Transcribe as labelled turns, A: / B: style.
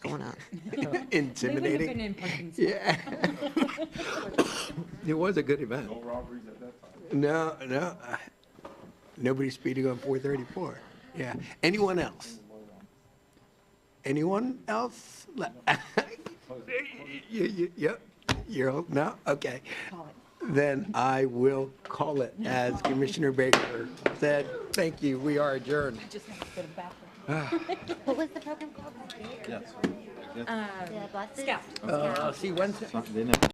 A: going on.
B: They
C: Intimidating.
B: wouldn't have been in Parkinson's.
C: Yeah. It was a good event.
D: No robberies at that time.
C: No, no. uh, Nobody speeding on 434. Yeah. Anyone else? Anyone else? Le- You- you- Yep. You're, all- no? Okay.
B: Call it.
C: Then I will call it, as Commissioner Baker said. Thank you. We are adjourned.
B: I just have to go to the bathroom.
E: What was the program called?
D: Yes.
E: The buses?
B: Scout.
C: Uh, See you Wednesday.
D: They never